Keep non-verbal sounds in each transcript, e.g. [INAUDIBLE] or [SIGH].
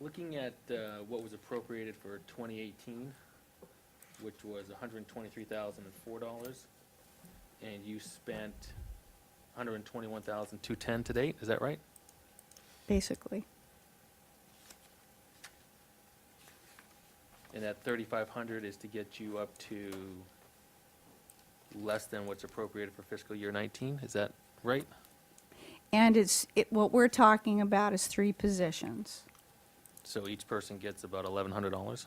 Looking at uh, what was appropriated for 2018, which was $123,004, and you spent $121,210 to date, is that right? basically. And that 3,500 is to get you up to less than what's appropriated for fiscal year 19, is that right? And it's, it, what we're talking about is three positions. So each person gets about $1,100?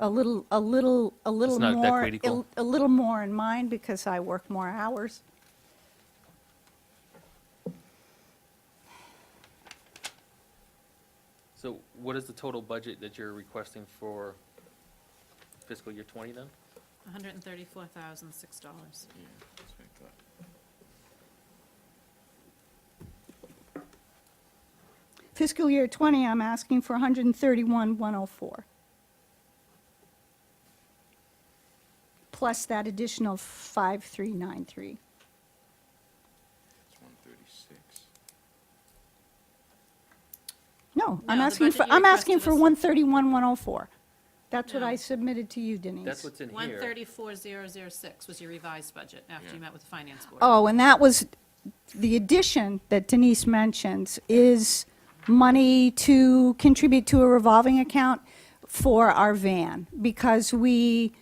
A little, a little, a little not that more, critical. a little more in mine because I work more hours. So what is the total budget that you're requesting for fiscal year 20 then? hundred and thirty-four thousand, six dollars. Fiscal year 20, I'm asking for 131,104. Plus that additional 5393. It's one thirty-six. No, I'm No, the asking for, budget you I'm asking requested for is- 131,104. That's what No. I submitted to you, Denise. That's what's in here. One thirty-four, zero, zero, six was your revised budget after you Yeah. met with the finance board. Oh, and that was, the addition that Denise mentions is money to contribute to a revolving account for our van, because we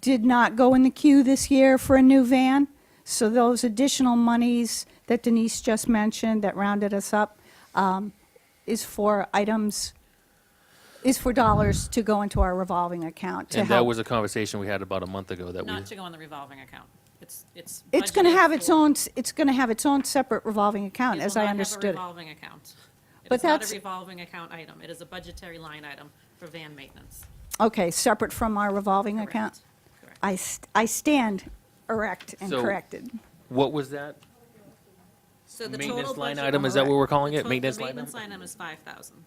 did not go in the queue this year for a new van. So those additional monies that Denise just mentioned that rounded us up um, is for items, is for dollars to go into our revolving account to And that help. was a conversation we had about a month ago that we, Not to go on the revolving account. It's, it's. It's going to budgeted have its for- own, s- it's going to have its own separate revolving account, It as will I not have a understood it. revolving account. It But is not that's- a revolving account item. It is a budgetary line item for van maintenance. Okay, separate from our revolving account? Correct. Correct. I, st- I stand erect and So- corrected. what was that? So the total Maintenance line budget- item, is that what we're calling The it? total- Maintenance the line Maintenance item? line item is five thousand.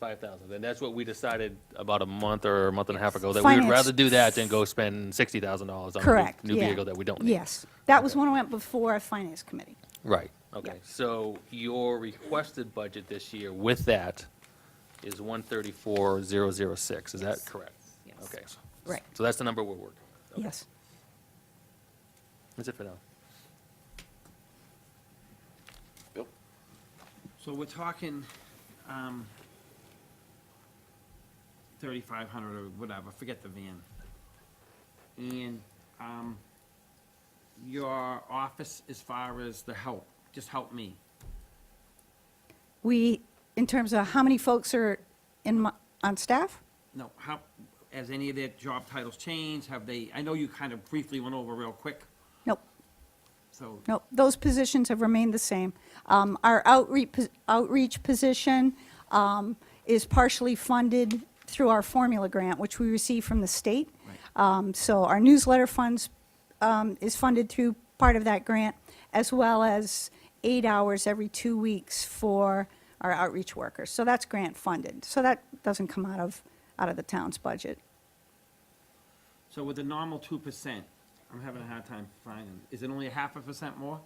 Five thousand, and that's what we decided about a month or a month and a half Yes. ago, that we would Finance. rather do that than go spend sixty thousand dollars on a Correct, new- new yeah. vehicle that we don't need. Yes, that was when I went before Finance Committee. Right, okay, Yeah. so your requested budget this year with that is one thirty-four, zero, zero, six, is that Yes. correct? Yes. Okay. Right. So that's the number we're working. with. Yes. That's it for now. Bill? So we're talking, um, thirty-five hundred or whatever, forget the van. And, um, your office as far as the help, just help me. We, in terms of how many folks are in, my- on staff? No, how, has any of their job titles changed? Have they, I know you kind of briefly went over real quick, Nope, so. nope, those positions have remained the same. Um, Our outreach, pos- outreach position um, is partially funded through our formula grant, which we receive from the state. Right. Um, So our newsletter funds um, is funded through part of that grant, as well as eight hours every two weeks for our outreach workers. So that's grant funded. So that doesn't come out of, out of the town's budget. So with the normal two percent, I'm having a hard time finding, is it only a half a percent more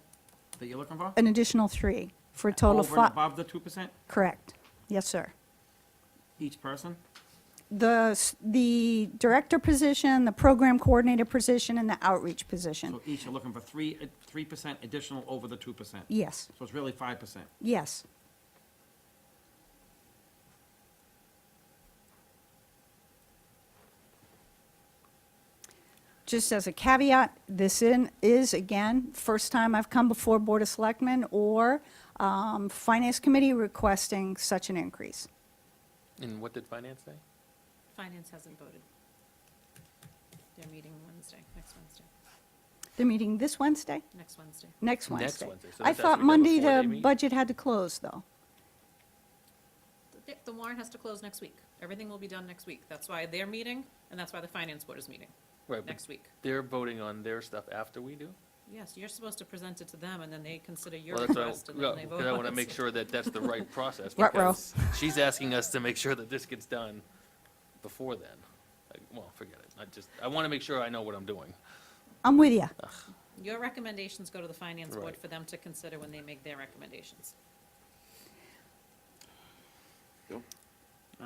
that you're looking for? An additional three for a total of Over and five. above the two percent Correct. Yes, sir. each person? The, s- the director position, the program coordinator position, and the outreach position. So each are looking for three, three percent additional over the two percent. Yes, So it's really five percent. yes. Just as a caveat, this in, is, again, first time I've come before Board of Selectmen or um, Finance Committee requesting such an increase. And what did finance say? Finance hasn't voted. They're meeting Wednesday, next Wednesday, They're meeting this Wednesday, next Wednesday. next Next Wednesday. Wednesday, so I that's thought actually Monday before they the meet? budget had to close, though. The- The warrant has to close next week. Everything will be done next week. That's why they're meeting, and that's why the finance board is meeting Right, but next week. They're voting on their stuff after we do? Yes, you're supposed to present it to them, and then they consider your Well, that's why, request, and then they vote. because I want to on it. make sure that [LAUGHS] that's the right process. Ruh-roh. because She's asking us to make sure that this gets done before then. Like, Well, forget it. I just, I want to make sure I know what I'm doing. I'm with you. Your recommendations go to the finance board Right. for them to consider when they make their recommendations. Bill?